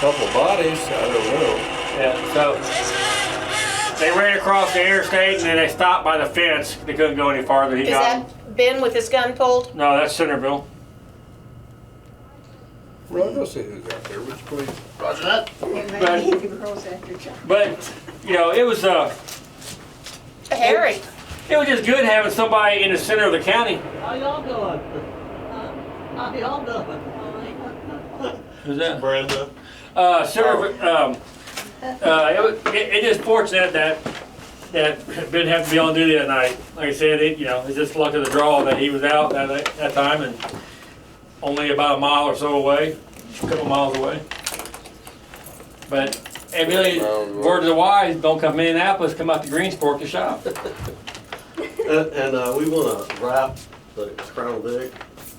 couple bodies, I don't know. Yeah, so they ran across the interstate and then they stopped by the fence. They couldn't go any farther. He Is got that Ben with his gun pulled? no. That's Centerville. Well, I don't see who's out there, which police? Roger that. But- Maybe the girls after John. But you know, it was uh, Harry. it was just good having somebody in the center of the county. How y'all doing? How y'all doing? Who's that? Brenda. Uh, Centerville. Um, uh, it, was, it, it is fortunate that that Ben had to be on duty that night. Like I said, it you know, it's just luck of the draw that he was out that that time and only about a mile or so away, a couple miles away. But and really, word of the wise, don't come to Minneapolis, come out to Greensport to shop. And, and, uh, we wanna wrap the Crown Vic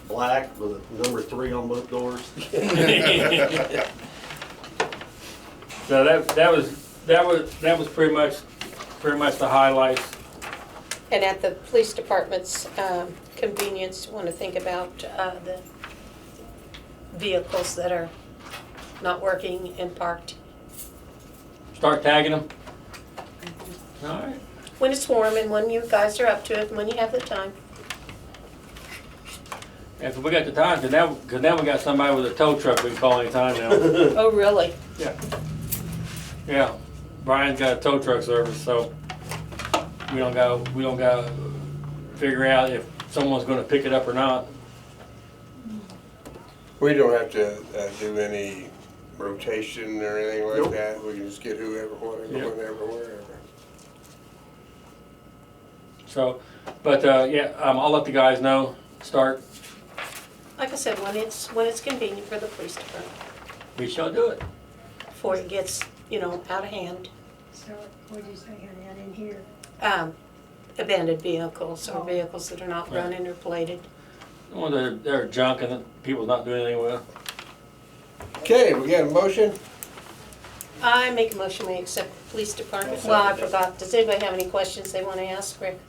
black with number three on both doors. so that that was that was that was pretty much pretty much the highlights. And at the police department's um, convenience, want to think about uh, the vehicles that are not working and parked. Start tagging them. All right. When it's warm and when you guys are up to it and when you have the time. If we got the time, cause now, cause now we got somebody with a tow truck we can call anytime now. Oh, really? Yeah, Brian's got a tow truck service, so we don't go, we don't gotta figure out if someone's gonna pick it up or not. We don't have to uh, do any rotation or anything like that. We can just get whoever, Yeah. whatever, whenever, wherever. So, but, uh, yeah, um, I'll let the guys know, start, Like I said, when it's, when it's convenient for the police department, we shall do it. before it gets, you know, out of hand. So what did you say, honey? I didn't hear. Um, Abandoned vehicles Oh. or vehicles that are not Right. running or plated. Well, they're, they're junk and people not doing anything with. Okay, we got a motion? I make a motion, we accept the police department. Well, I forgot. Does anybody have any questions they want to ask, Rick?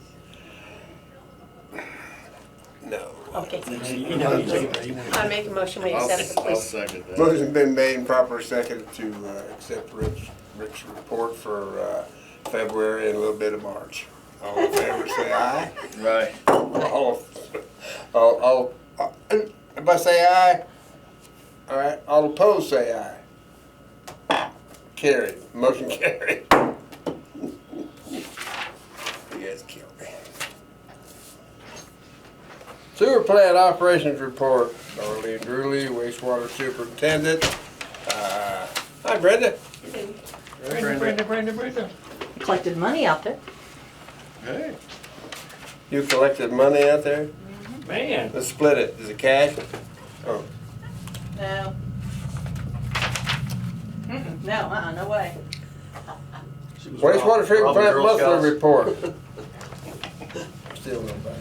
No. Okay. You know, you take it, you know. I make a motion, we accept the I'll police. second that. Motion been made and proper second to uh, accept Rick's, Rick's report for uh, February and a little bit of March. All in favor, say aye. Right. All, all, all, all- everybody say aye. All right, all opposed, say aye. Carried, motion carried. You guys killed me. Sewer plant operations report, Darlene Drewley, wastewater superintendent. Uh, Hi Brenda. Brenda, Brenda, Brenda. collected money out there. Hey. You collected money out there? Man, Let's split it. Is it cash? Oh, No. Mm-mm, No, uh-uh, no way. She was Wastewater robbed- treatment robbed the plant Girl Scouts. monthly report. Still nobody.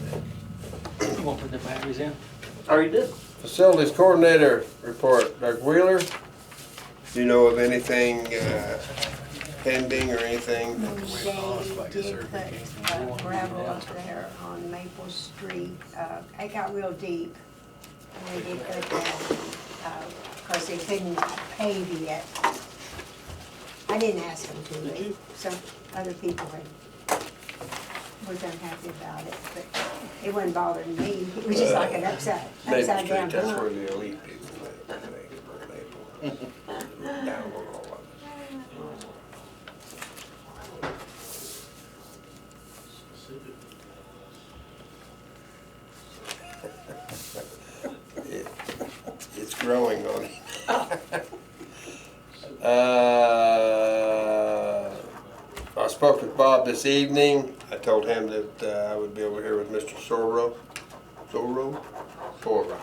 I'm gonna put the batteries in. Already did. Facilities coordinator report, Doug Wheeler. Do you know of anything uh, pending or anything? They did put uh, gravel up there on Maple Street. Uh, It got real deep. And they did go down, because they couldn't pave yet. I didn't ask them to, but some other people had, was unhappy about it, but it wouldn't bother me. It was just like an upside, Maple upside Street, down that's where blunt. the elite people live. I think, or Maple. Down on all of it. It's growing on me. Uh, I spoke with Bob this evening. I told him that uh, I would be over here with Mr. Sorrow. Sorrow? Sora.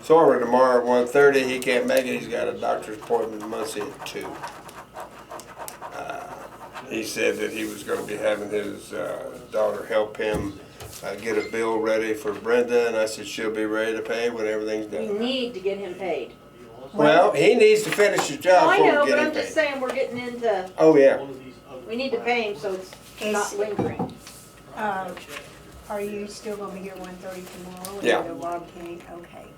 Sora tomorrow at one thirty. He can't make it. He's got a doctor's appointment in Muncie at two. Uh, He said that he was gonna be having his uh, daughter help him uh, get a bill ready for Brenda, and I said she'll be ready to pay when everything's We done. need to get him paid. Well, he needs to finish his job I before know, we but get him I'm just paid. saying, we're getting into, Oh, yeah. we need to pay him so it's not Is- lingering. Uh, Are you still gonna be here one thirty tomorrow? Yeah. And the log cake? okay.